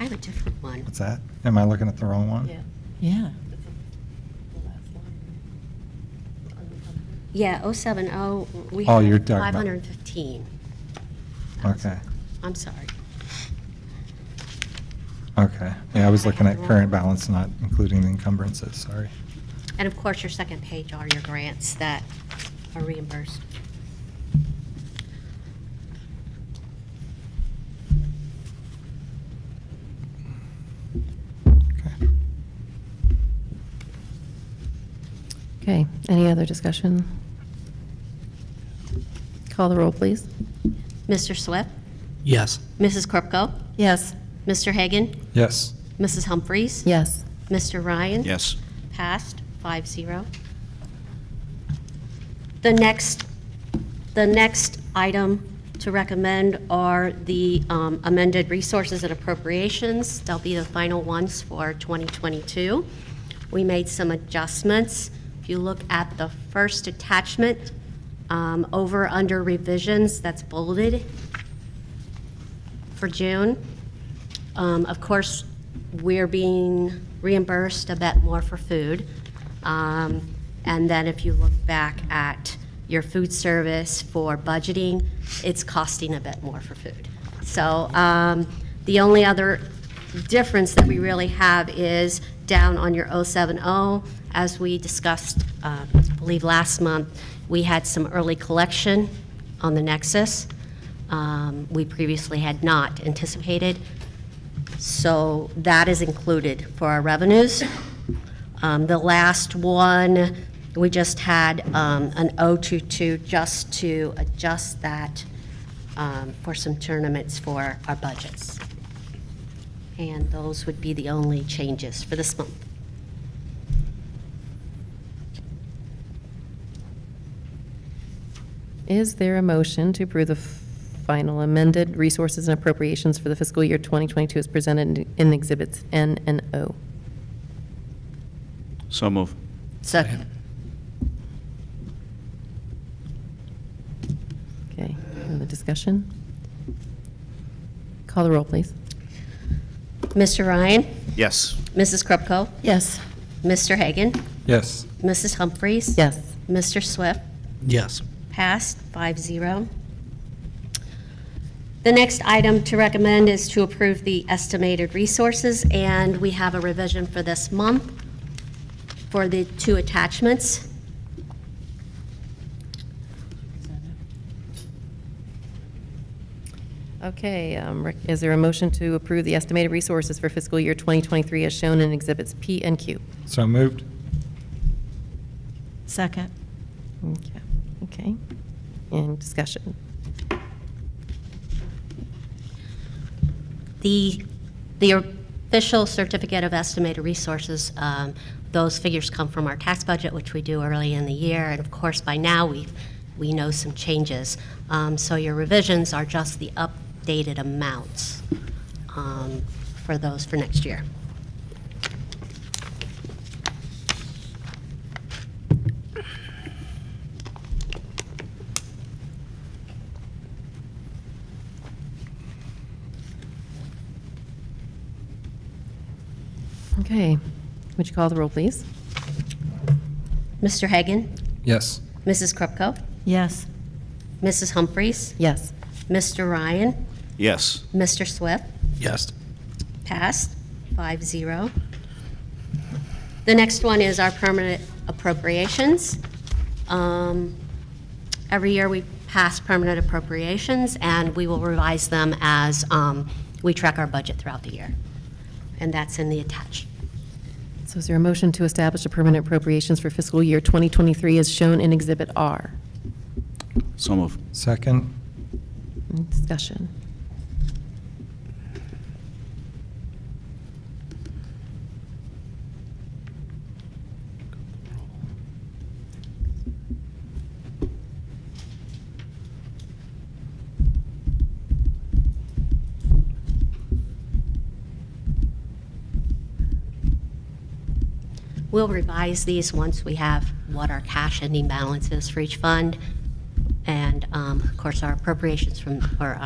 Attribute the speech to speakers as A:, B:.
A: I have a different one.
B: What's that? Am I looking at the wrong one?
C: Yeah.
A: Yeah, 070, we
B: Oh, you're
A: have
B: talking about-
A: 515.
B: Okay,
A: I'm sorry.
B: okay. Yeah, I was looking at current balance, not including the encumbrances, sorry.
A: And of course, your second page are your grants that are reimbursed.
B: Okay.
D: Okay, any other discussion? Call the roll, please.
A: Mr. Swift,
E: Yes.
A: Mrs. Krupko,
D: Yes.
A: Mr. Hagan,
B: Yes,
A: Mrs. Humphries.
D: Yes.
A: Mr. Ryan.
E: Yes.
A: Passed, five zero. The next, the next item to recommend are the um, amended resources and appropriations. They'll be the final ones for 2022. We made some adjustments. If you look at the first attachment, um, over, under revisions, that's bolded for June. Um, Of course, we're being reimbursed a bit more for food. Um, And then if you look back at your food service for budgeting, it's costing a bit more for food. So um, the only other difference that we really have is down on your 070, as we discussed, uh, I believe, last month, we had some early collection on the Nexus. Um, We previously had not anticipated. So that is included for our revenues. Um, The last one, we just had um, an 022 just to adjust that um, for some tournaments for our budgets. And those would be the only changes for this month.
D: Is there a motion to approve the final amended resources and appropriations for the fiscal year 2022 as presented in Exhibits N and O?
F: So move.
A: Second.
D: Okay, the discussion? Call the roll, please.
A: Mr. Ryan,
F: Yes.
A: Mrs. Krupko,
D: Yes.
A: Mr. Hagan,
B: yes.
A: Mrs. Humphries.
D: Yes.
A: Mr. Swift.
E: Yes.
A: Passed, 5-0. The next item to recommend is to approve the estimated resources, and we have a revision for this month for the two attachments.
D: Okay, um, rec- is there a motion to approve the estimated resources for fiscal year 2023 as shown in Exhibits P and Q?
B: So moved?
C: Second.
D: Okay. Okay, and discussion?
A: The, the official certificate of estimated resources, um, those figures come from our tax budget, which we do early in the year, and of course, by now, we, we know some changes. Um, So your revisions are just the updated amounts um, for those for next year.
D: Okay, would you call the roll, please?
A: Mr. Hagan,
B: Yes.
A: Mrs. Krupko,
C: Yes.
A: Mrs. Humphries,
D: Yes.
A: Mr. Ryan,
F: Yes.
A: Mr. Swift,
E: Yes.
A: Passed, 5-0. The next one is our permanent appropriations. Um, Every year, we pass permanent appropriations, and we will revise them as um, we track our budget throughout the year. And that's in the attached.
D: So is there a motion to establish a permanent appropriations for fiscal year 2023 as shown in Exhibit R?
F: So move.
B: Second?
D: Any Discussion?
A: We'll revise these once we have what our cash ending balance is for each fund, and um, of course, our appropriations from, or